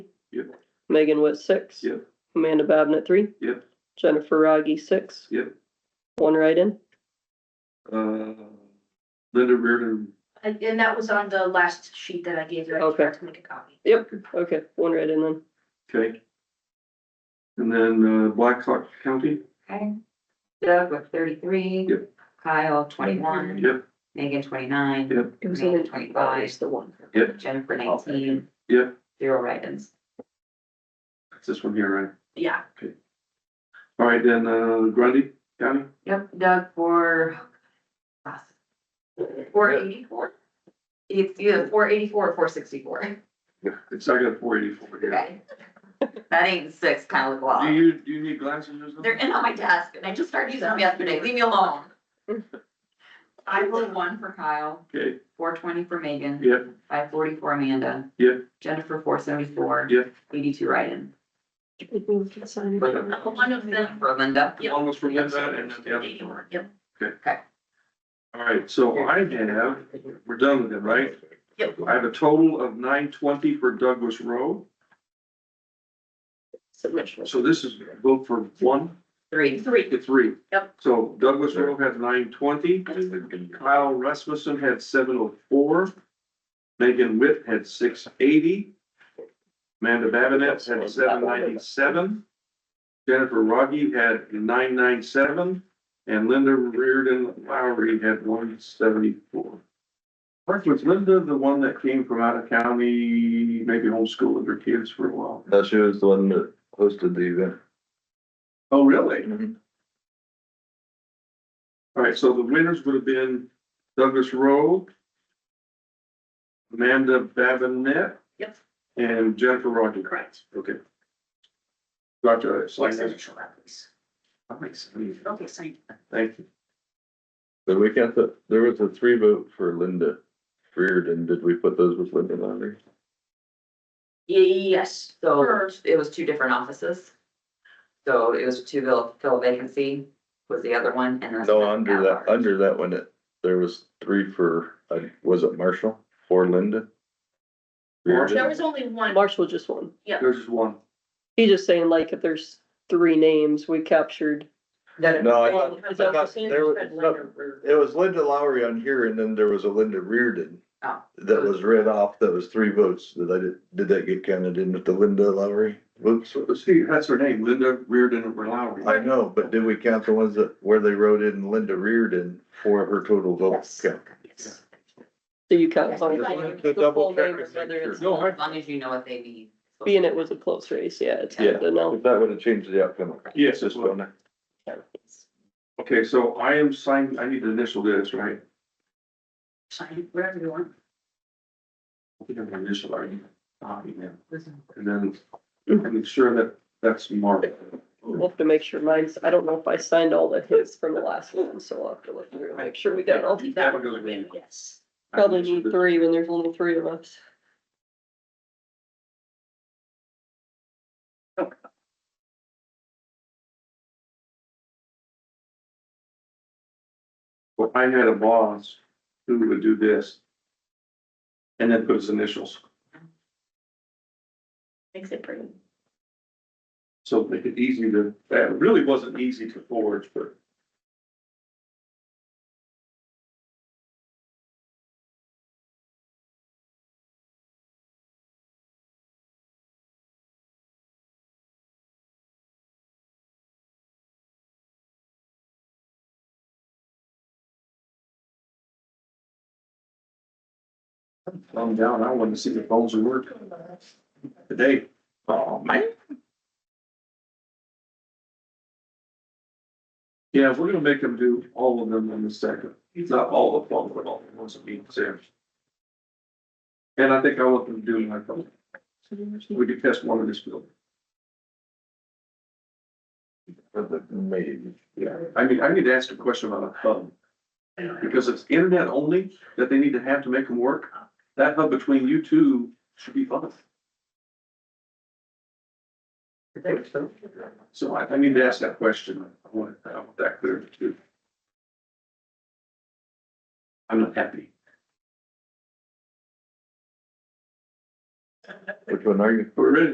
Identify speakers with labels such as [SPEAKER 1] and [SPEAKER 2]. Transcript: [SPEAKER 1] Megan was six.
[SPEAKER 2] Yep.
[SPEAKER 1] Amanda Bowden at three.
[SPEAKER 2] Yep.
[SPEAKER 1] Jennifer Rogge, six.
[SPEAKER 2] Yep.
[SPEAKER 1] One write-in.
[SPEAKER 2] Uh, Linda Reardon,
[SPEAKER 3] And and that was on the last sheet that I gave you. I
[SPEAKER 1] Okay.
[SPEAKER 3] forgot to make a copy.
[SPEAKER 1] Yep, okay, one write-in then.
[SPEAKER 2] okay. And then, uh, Blackhawk County,
[SPEAKER 4] Okay. Doug with thirty-three.
[SPEAKER 2] Yep.
[SPEAKER 4] Kyle, twenty-one.
[SPEAKER 2] yep,
[SPEAKER 4] Megan, twenty-nine.
[SPEAKER 2] Yep.
[SPEAKER 1] It was
[SPEAKER 4] Amanda, twenty-five.
[SPEAKER 1] the one.
[SPEAKER 2] Yep.
[SPEAKER 4] Jennifer, nineteen.
[SPEAKER 2] Yep.
[SPEAKER 4] Zero write-ins.
[SPEAKER 2] it's this one here, right?
[SPEAKER 3] Yeah,
[SPEAKER 2] All right, then, uh, Grundy County,
[SPEAKER 4] Yep, Doug for. Four eighty-four? It's either four eighty-four or four sixty-four.
[SPEAKER 2] Yeah, it's, I got four eighty-four here.
[SPEAKER 4] Okay. That ain't six, kind of
[SPEAKER 2] Do
[SPEAKER 4] law.
[SPEAKER 2] you, do you need glasses or something?
[SPEAKER 4] They're in on my desk and I just started using them yesterday. Leave me alone. I vote one for Kyle,
[SPEAKER 2] Okay,
[SPEAKER 4] four twenty for Megan.
[SPEAKER 2] yep,
[SPEAKER 4] Five forty-four Amanda.
[SPEAKER 2] Yep.
[SPEAKER 4] Jennifer, four seventy-four.
[SPEAKER 2] Yep.
[SPEAKER 4] Eighty-two write-in.
[SPEAKER 3] one of them.
[SPEAKER 4] For Linda.
[SPEAKER 3] Yep.
[SPEAKER 2] one was from Linda and then the other.
[SPEAKER 3] Eighty-one, yep.
[SPEAKER 2] All right, so I have, we're done with it, right?
[SPEAKER 3] Yep.
[SPEAKER 2] I have a total of nine twenty for Douglas Road,
[SPEAKER 1] Submission.
[SPEAKER 2] so this is vote for one
[SPEAKER 4] Three.
[SPEAKER 3] Three,
[SPEAKER 2] to three.
[SPEAKER 3] Yep.
[SPEAKER 2] So Douglas Road had nine twenty, Kyle Rasmussen had seven oh four, Megan Witt had six eighty, Amanda Babinett had seven ninety-seven, Jennifer Rogge had nine nine seven, and Linda Reardon Lowry had one seventy-four. First was Linda, the one that came from out of county, maybe homeschooling her kids for a while.
[SPEAKER 5] No, she was the one that hosted the event.
[SPEAKER 2] Oh, really?
[SPEAKER 5] Mhm.
[SPEAKER 2] All right, so the winners would have been Douglas Rowe, Amanda Babinet.
[SPEAKER 3] Yep.
[SPEAKER 2] And Jennifer Rogers.
[SPEAKER 3] correct.
[SPEAKER 2] Okay. Gotcha, it's like, that
[SPEAKER 3] Signature that, please.
[SPEAKER 2] makes sense.
[SPEAKER 3] Okay, sign.
[SPEAKER 2] Thank you.
[SPEAKER 5] But we got the, there was a three vote for Linda Reardon. Did we put those with Linda Lowry?
[SPEAKER 3] Yes,
[SPEAKER 4] So
[SPEAKER 3] First.
[SPEAKER 4] it was two different offices. So it was to fill, fill vacancy was the other one and then.
[SPEAKER 5] No, under that, under that one, it- there was three for, uh, was it Marshall for Linda?
[SPEAKER 2] Marshall.
[SPEAKER 3] there
[SPEAKER 5] Reardon?
[SPEAKER 3] was only one,
[SPEAKER 1] Marshall just won.
[SPEAKER 2] There's just one.
[SPEAKER 1] He's just saying like if there's three names, we captured.
[SPEAKER 4] That-
[SPEAKER 5] No, I
[SPEAKER 3] Well,
[SPEAKER 5] thought, I thought there was, no, it was Linda Lowry on here and then there was a Linda Reardon.
[SPEAKER 4] Oh.
[SPEAKER 5] That was read off. That was three votes that I did, did that get counted in with the Linda Lowry? Whoops.
[SPEAKER 2] So, see, that's her name, Linda Reardon Lowry.
[SPEAKER 5] I know, but did we count the ones that, where they wrote in Linda Reardon for her total vote
[SPEAKER 4] Yes.
[SPEAKER 5] count?
[SPEAKER 3] yes.
[SPEAKER 1] So you count.
[SPEAKER 5] I just wanted to
[SPEAKER 1] The
[SPEAKER 5] double
[SPEAKER 1] full
[SPEAKER 5] check
[SPEAKER 1] name
[SPEAKER 5] and
[SPEAKER 1] is whether
[SPEAKER 5] make
[SPEAKER 1] it's-
[SPEAKER 5] sure.
[SPEAKER 2] No, I-
[SPEAKER 4] As long as you know what they need.
[SPEAKER 1] Being it was a close race, yeah, it's
[SPEAKER 5] Yeah.
[SPEAKER 1] hard to know.
[SPEAKER 5] If that would have changed the outcome.
[SPEAKER 2] Yes,
[SPEAKER 5] Just
[SPEAKER 2] that's one.
[SPEAKER 5] one.
[SPEAKER 2] Okay, so I am signed, I need to initial this, right?
[SPEAKER 3] Sign wherever you want.
[SPEAKER 2] I think I'm gonna initial, are you? Ah, yeah. And then make sure that that's marked.
[SPEAKER 1] We'll have to make sure mine's, I don't know if I signed all the hits from the last one, so I'll have to look through and make sure we got all.
[SPEAKER 2] That one goes in.
[SPEAKER 3] Yes.
[SPEAKER 1] Probably need three when there's only three of us.
[SPEAKER 2] Well, I had a boss who would do this. And then put his initials,
[SPEAKER 3] Makes it pretty.
[SPEAKER 2] so make it easy to, that really wasn't easy to forge, but. I'm down, I wanted to see the phones work today. Oh, man. Yeah, we're gonna make them do all of them in a second. Not all of them, but all the ones that need to. And I think I want them to do my phone. We could test one of this building.
[SPEAKER 5] Maybe.
[SPEAKER 2] Yeah, I mean, I need to ask a question about a hub. Because it's internet only that they need to have to make them work. That hub between you two should be fun. So I, I need to ask that question. I want, I want that clear too. I'm not happy.
[SPEAKER 5] Which one are you?
[SPEAKER 2] We're ready